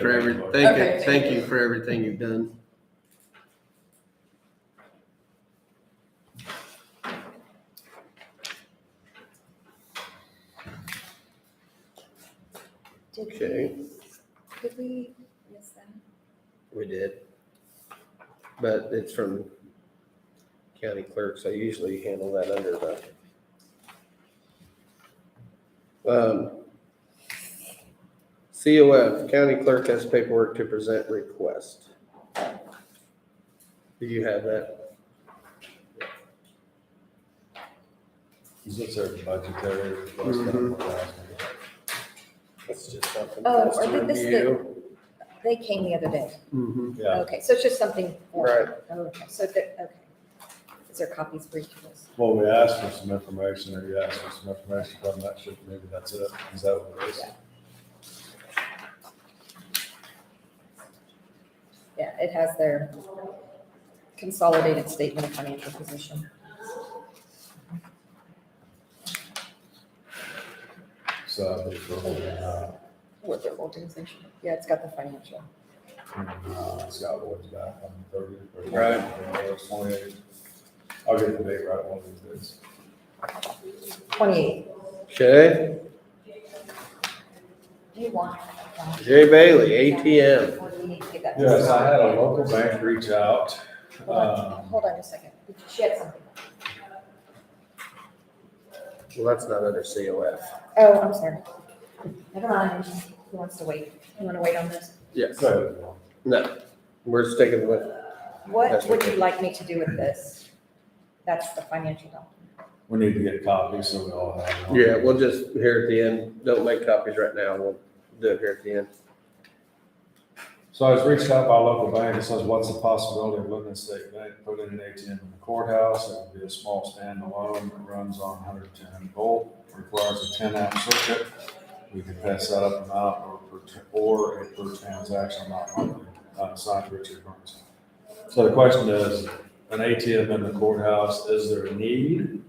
for every, thank Okay. you, thank you for everything you've done. Did Okay. we, did we miss that? We did. But it's from county clerks. I usually handle that under the. Um, COF, county clerk has paperwork to present request. Do you have that? Is this our budgetary request? Mhm. That's just something. Oh, That's I to think this is review. They came the other day. Mhm. Yeah, Okay, so it's just something. Oh, Right. Okay, so that, okay. Is there copies for each of us? well, we asked for some information, or you asked for some information, but I'm not sure, maybe that's it, is that what it is? Yeah, it has their consolidated statement of financial position. So I think we're holding out, What their organization, yeah, it's got the financial. uh, Scott Woods back on the thirty. Right. Twenty-eight. I'll get the date right one of these days. Twenty-eight. Okay, Do you want? Jay Bailey, ATM. Or do we need to get that? Yes, I had a local bank reach out, Hold on, um, hold on a second. She had something. Well, that's not under COF. Oh, I'm sorry. Never mind. Who wants to wait? You want to wait on this? Yes. so, No, we're sticking with, What That's would you okay. like me to do with this? That's the financial document. we need to get copies, so we all have. one. yeah, we'll just, here at the end, don't make copies right now. We'll do it here at the end. So I was reached out by a local bank and says, what's the possibility of Woodland State Bank putting an ATM in the courthouse? It would be a small standalone that runs on hundred ten volt, requires a ten amp circuit. We could pass that up and out or per, tr- or a per transaction amount monthly, uh, signed Richard Burns. So the question is, an ATM in the courthouse, is there a need?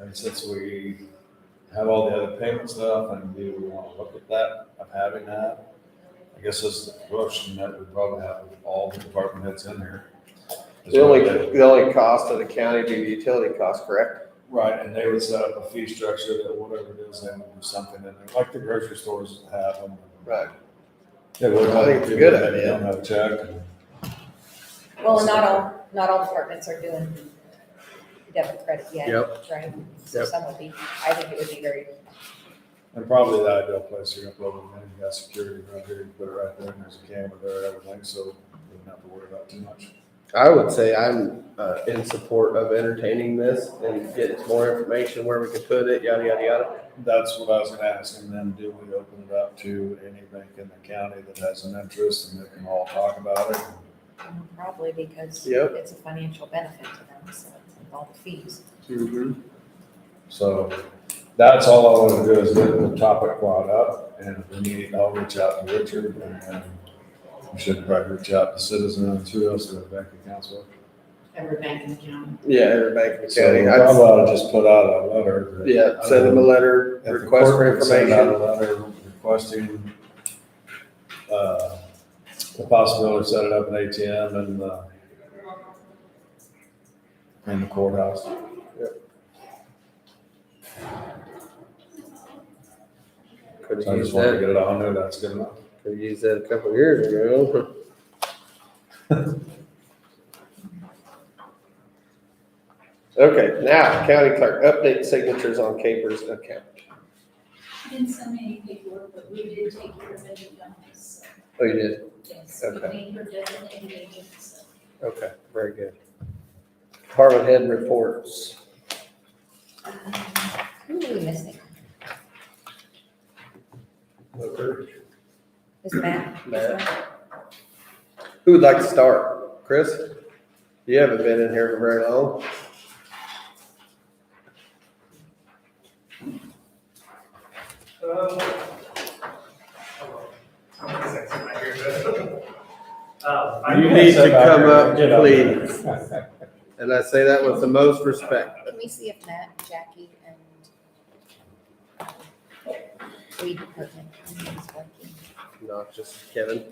And since we have all the other payment stuff and do we want to look at that, of having that? I guess this is the question that we probably have with all the department heads in here. The only, the only cost of the county would be the utility cost, correct? Right, and they would set up a fee structure that whatever it is, they would do something in there, like the grocery stores have them. Right. They would I think it's a good They idea. don't have a check. and- Well, not all, not all departments are doing debit credit yet, Yep. right? So Yep. some would be, I think it would be very, And probably the ideal place you're gonna put them in, you got security right here, you put it right there, and there's a camera there, everything, so you don't have to worry about too much. I would say I'm, uh, in support of entertaining this and getting more information where we could put it, yada, yada, yada. That's what I was gonna ask, and then do we open it up to any bank in the county that has an interest and they can all talk about it? probably because Yep. it's a financial benefit to them, so it's with all the fees. So that's all I want to do is get the topic brought up and if we need, I'll reach out to Richard and then we should probably reach out to citizens who else do bank accounts with. every bank in the county. Yeah, every bank in the So county. we I'd- probably ought to just put out a letter. that- Yeah, send them a letter, If um, the request for clerk would send out information. a letter requesting uh, the possibility of setting up an ATM in the in the courthouse. Could So I have just used wanted to that, get it on there. That's good enough. could have used that a couple of years ago. Okay, now county clerk, update signatures on Capers account. Didn't send me any paperwork, but we did take care of it, um, so, Oh, you did? yes, Okay. we made her designated agent, so. Okay, very good. Department head reports. Um, Who are we missing? Is Matt? Matt. Who would like to start? Chris? You haven't been in here for very long. Um, hold on. One second, I hear this. Um, I- You need to come up, Get up there. And I say that with the most respect. Can we see if Matt, Jackie, and um, weed department is working? Not just Kevin.